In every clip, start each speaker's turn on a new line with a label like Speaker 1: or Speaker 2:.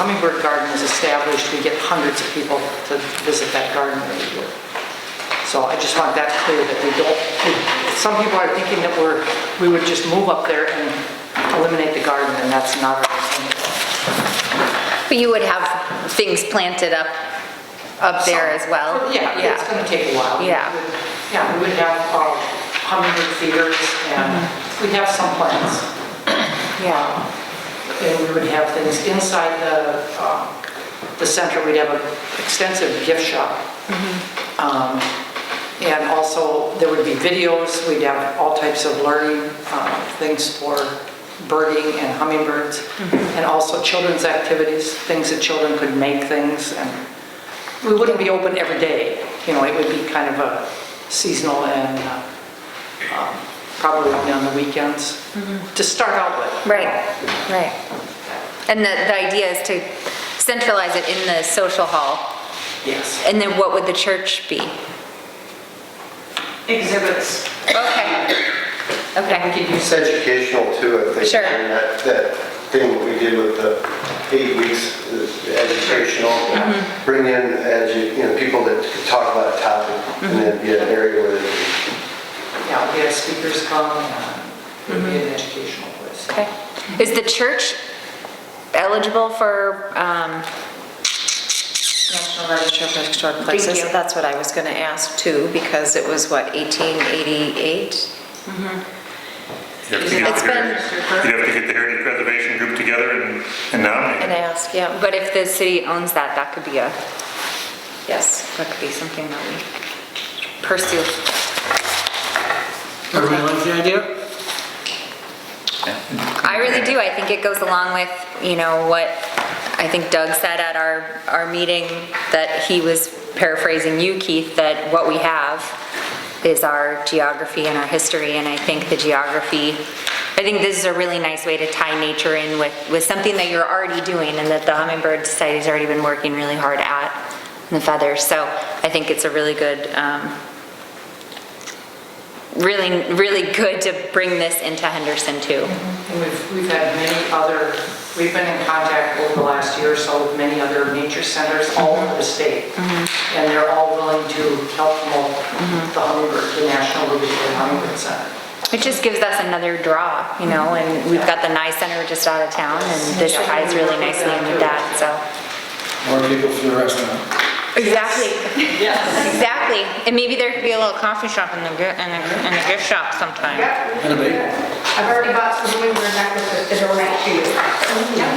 Speaker 1: Hummingbird Garden is established, we get hundreds of people to visit that garden every year. So I just want that clear, that we don't, some people are thinking that we're, we would just move up there and eliminate the garden, and that's not our intent.
Speaker 2: But you would have things planted up, up there as well?
Speaker 1: Yeah, it's going to take a while.
Speaker 2: Yeah.
Speaker 1: Yeah, we would have uh, hummingbird feeders, and we'd have some plants.
Speaker 2: Yeah.
Speaker 1: And we would have things inside the, um, the center, we'd have an extensive gift shop. Um, And also, there would be videos, we'd have all types of learning uh, things for birding and hummingbirds, and also children's activities, things that children could make things, and we wouldn't be open every day, you know, it would be kind of a seasonal and uh, um, probably only on the weekends, to start out with.
Speaker 2: Right, right. And the, the idea is to centralize it in the social hall,
Speaker 1: Yes.
Speaker 2: and then what would the church be?
Speaker 3: exhibits.
Speaker 2: Okay.
Speaker 1: We
Speaker 2: Okay,
Speaker 1: could use
Speaker 4: It's educational too, I think.
Speaker 2: Sure.
Speaker 4: And That, that thing that we did with the eight weeks is educational, bring in, edu- you know, people that could talk about a topic and then be an area where they can
Speaker 1: Yeah, we had speakers come, and
Speaker 5: Mm-hmm.
Speaker 1: it would be an educational place.
Speaker 2: okay. Is the church eligible for, um,
Speaker 3: National Register of Historic
Speaker 2: Thank
Speaker 3: Places.
Speaker 2: you.
Speaker 3: That's what I was going to ask too, because it was what, 1888?
Speaker 6: You have to
Speaker 2: It's
Speaker 6: get your-
Speaker 2: been-
Speaker 6: you have to get the Heritage Preservation Group together and and nominate.
Speaker 3: And ask, yeah,
Speaker 2: but if the city owns that, that could be a,
Speaker 3: yes.
Speaker 2: that could be something that we pursue.
Speaker 7: Everybody like the idea?
Speaker 2: I really do. I think it goes along with, you know, what I think Doug said at our, our meeting, that he was paraphrasing you, Keith, that what we have is our geography and our history, and I think the geography, I think this is a really nice way to tie nature in with, with something that you're already doing, and that the Hummingbird Society's already been working really hard at, and the feathers. So I think it's a really good, um, really, really good to bring this into Henderson too.
Speaker 1: And we've, we've had many other, we've been in contact over the last year or so with many other nature centers all over the state.
Speaker 5: Mm-hmm.
Speaker 1: And they're all willing to help promote the Hummingbird, the National Ruby Hill Hummingbird Center.
Speaker 2: It just gives us another draw, you know, and we've got the Nye Center just out of town, and this ties really nicely into that, so.
Speaker 7: More people for the restaurant.
Speaker 2: Exactly.
Speaker 1: Yes.
Speaker 2: Exactly, and maybe there could be a little coffee shop in the, in the, in the gift shop sometime.
Speaker 7: And a big.
Speaker 5: I've already bought some Bloomberg necklaces to donate to you. Yeah.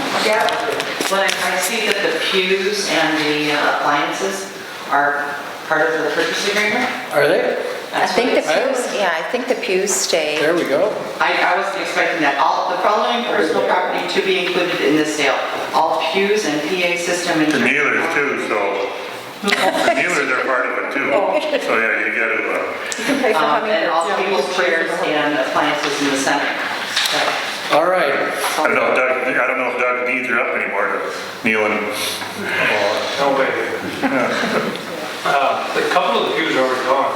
Speaker 8: Well, I see that the pews and the uh, appliances are part of the purchase agreement.
Speaker 7: Are they?
Speaker 3: I
Speaker 8: That's
Speaker 3: think the
Speaker 8: what it-
Speaker 3: pews, yeah, I think the pews stay.
Speaker 7: There we go.
Speaker 8: I, I was expecting that. All, the following personal property to be included in this sale. All pews and PA system and.
Speaker 6: The Nealers too, so, the Nealers are part of it too. So yeah, you gotta, uh,
Speaker 8: Um, And all people's chairs and appliances in the center.
Speaker 7: All right.
Speaker 6: I don't know if Doug, I don't know if Doug needs her up anymore to kneel and,
Speaker 9: No way. Uh, A couple of the pews are already gone.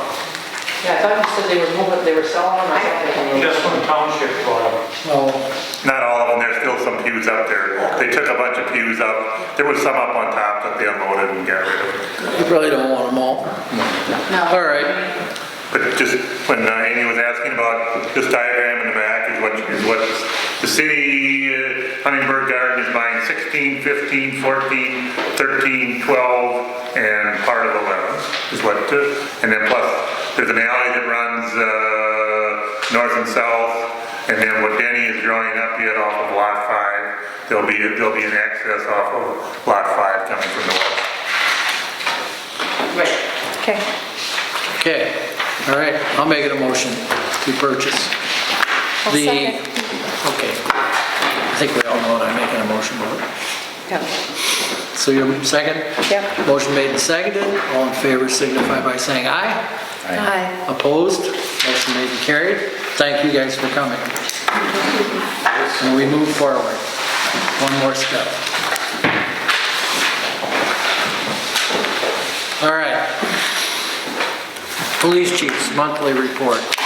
Speaker 1: Yeah, I thought you said they were moving, they were selling them or something.
Speaker 9: Just one township uh, bought
Speaker 7: Well,
Speaker 9: them.
Speaker 6: not all of them, there's still some pews up there. They took a bunch of pews up, there was some up on top that they unloaded and got rid of.
Speaker 7: you probably don't want them all. All right.
Speaker 6: But just when uh, Amy was asking about this diagram in the back is what, is what the city, uh, Huntingburg Garden is buying 16, 15, 14, 13, 12, and part of 11 is what, uh, and then plus, there's an alley that runs uh, north and south, and then what Denny is drawing up yet off of Lot 5, there'll be, there'll be an access off of Lot 5 coming from the west.
Speaker 8: Right.
Speaker 2: Okay.
Speaker 7: Okay. All right. I'll make it a motion to purchase. The, okay. I think we all know what I'm making a motion about. So you're second?
Speaker 3: Yep.
Speaker 7: Motion made and seconded. All in favor signify by saying aye.
Speaker 3: Hi.
Speaker 7: Opposed? Motion made and carried. Thank you guys for coming. And we move forward. One more step. All right. Police chief's monthly report.